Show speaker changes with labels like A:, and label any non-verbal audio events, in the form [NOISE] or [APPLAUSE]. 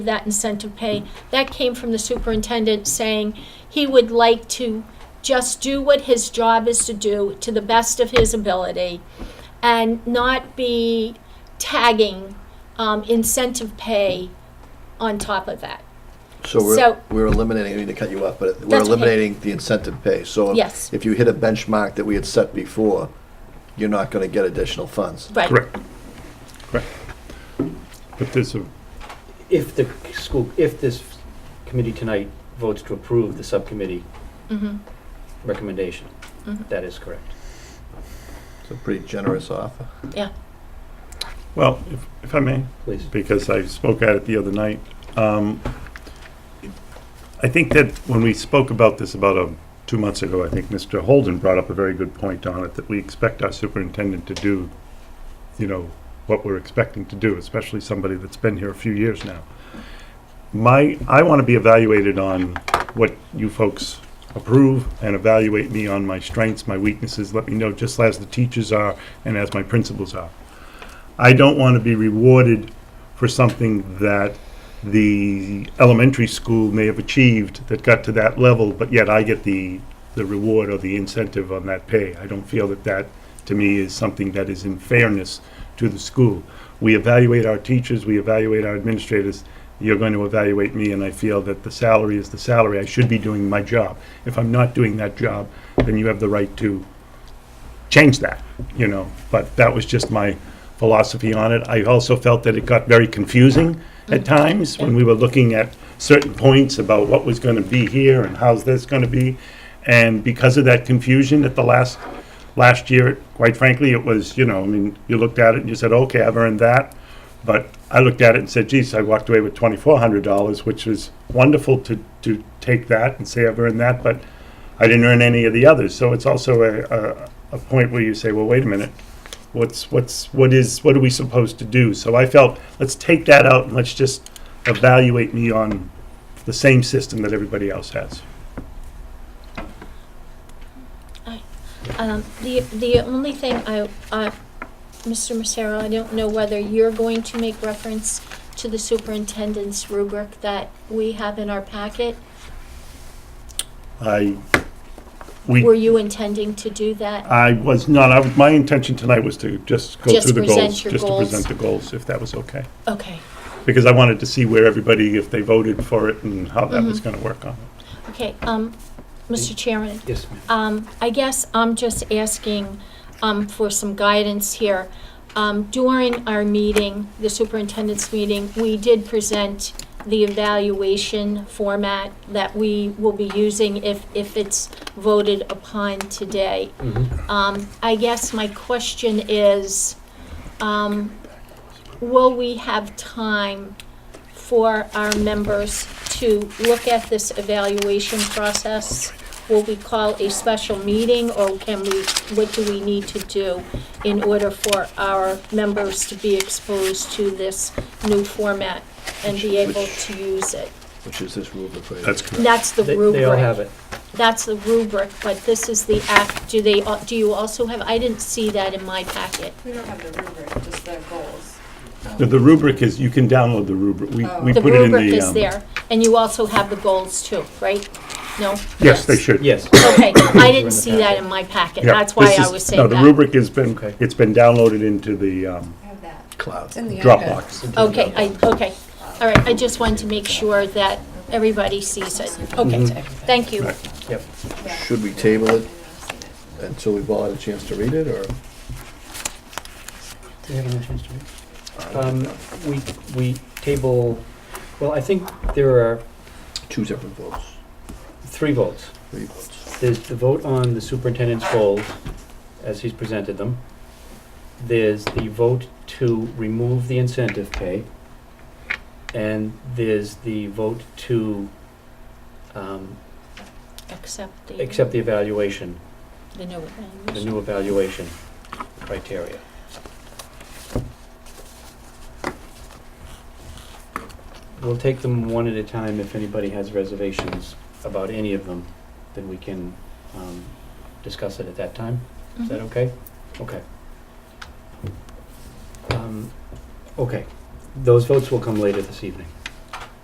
A: that incentive pay. That came from the superintendent saying he would like to just do what his job is to do to the best of his ability and not be tagging um, incentive pay on top of that.
B: So we're,
A: So-
B: we're eliminating, I mean to cut you off, but we're
A: That's okay.
B: eliminating the incentive pay. So
A: Yes.
B: if you hit a benchmark that we had set before, you're not gonna get additional funds.
A: Right.
C: Correct. Correct. But there's a,
D: if the school, if this committee tonight votes to approve the subcommittee
A: Mhm.
D: recommendation,
A: Mhm.
D: that is correct.
B: It's a pretty generous offer.
C: well, if, if I may,
D: Please.
C: because I spoke at it the other night, um, I think that when we spoke about this about um two months ago, I think Mr. Holden brought up a very good point on it, that we expect our superintendent to do, you know, what we're expecting to do, especially somebody that's been here a few years now. My, I want to be evaluated on what you folks approve and evaluate me on my strengths, my weaknesses, let me know just as the teachers are and as my principals are. I don't want to be rewarded for something that the elementary school may have achieved that got to that level, but yet I get the, the reward or the incentive on that pay. I don't feel that that, to me, is something that is in fairness to the school. We evaluate our teachers, we evaluate our administrators. You're going to evaluate me, and I feel that the salary is the salary. I should be doing my job. If I'm not doing that job, then you have the right to change that, you know, but that was just my philosophy on it. I also felt that it got very confusing at times when we were looking at certain points about what was gonna be here and how's this gonna be. And because of that confusion at the last, last year, quite frankly, it was, you know, I mean, you looked at it and you said, okay, I've earned that. But I looked at it and said, geez, I walked away with twenty-four hundred dollars, which was wonderful to, to take that and say I've earned that, but I didn't earn any of the others. So it's also a, a, a point where you say, well, wait a minute, what's, what's, what is, what are we supposed to do? So I felt, let's take that out and let's just evaluate me on the same system that everybody else has.
A: Um, the, the only thing I, uh, Mr. Lucero, I don't know whether you're going to make reference to the superintendent's rubric that we have in our packet.
C: I,
A: Were
C: we,
A: you intending to do that?
C: I was not, I, my intention tonight was to just go
A: Just
C: through the
A: present
C: goals.
A: your
C: Just to
A: goals.
C: present the goals, if that was okay.
A: Okay.
C: Because I wanted to see where everybody, if they voted for it and how that
A: Mm-hmm.
C: was gonna work on it.
A: Okay, um, Mr. Chairman,
D: Yes, ma'am.
A: um, I guess I'm just asking, um, for some guidance here. Um, during our meeting, the superintendent's meeting, we did present the evaluation format that we will be using if, if it's voted upon today.
D: Mhm.
A: Um, I guess my question is, um, will we have time for our members to look at this evaluation process? Will we call a special meeting, or can we, what do we need to do in order for our members to be exposed to this new format and be able to use it?
B: Which is this rubric right
C: That's
B: here.
C: correct.
A: And That's the
D: They
A: rubric.
D: they all have it.
A: That's the rubric, but this is the act, do they, al- do you also have, I didn't see that in my packet.
E: We don't have the rubric, just the goals.
C: The- The rubric is, you can download the rubric. We,
E: Oh.
C: we
A: The
C: put it in the.
A: rubric is
C: um,
A: there, and you also have the goals too, right? No?
C: Yes, they should.
D: Yes.
C: [COUGHS]
A: Okay, I didn't
D: the
A: see that
D: packet.
A: in my packet,
C: Yeah,
A: that's why
C: this
A: I
C: is-
A: was saying
C: No,
A: that.
C: the rubric has been,
D: Okay.
C: it's been downloaded into the um,
E: I have that.
B: Cloud.
E: It's in the iPad.
C: Dropbox.
A: Okay, I, okay, all right, I just wanted to make sure that everybody sees it. Okay,
C: Mm-hmm.
A: thank you.
D: Yep.
E: Yeah.
B: Should we table it
E: I know, I've seen it.
B: until we've all had a chance to read it, or?
D: Do you have another chance to read? Um, we, we table, well, I think there are
B: Two separate votes,
D: three votes.
B: three votes.
D: There's the vote on the superintendent's goals as he's presented them. There's the vote to remove the incentive pay. And there's the vote to um,
A: Accept the,
D: accept the evaluation,
A: the new
D: the
A: evaluation.
D: new evaluation criteria. We'll take them one at a time. If anybody has reservations about any of them, then we can um, discuss it at that time. Is that
A: Mhm.
D: okay? Okay. Um, Okay, those votes will come later this evening.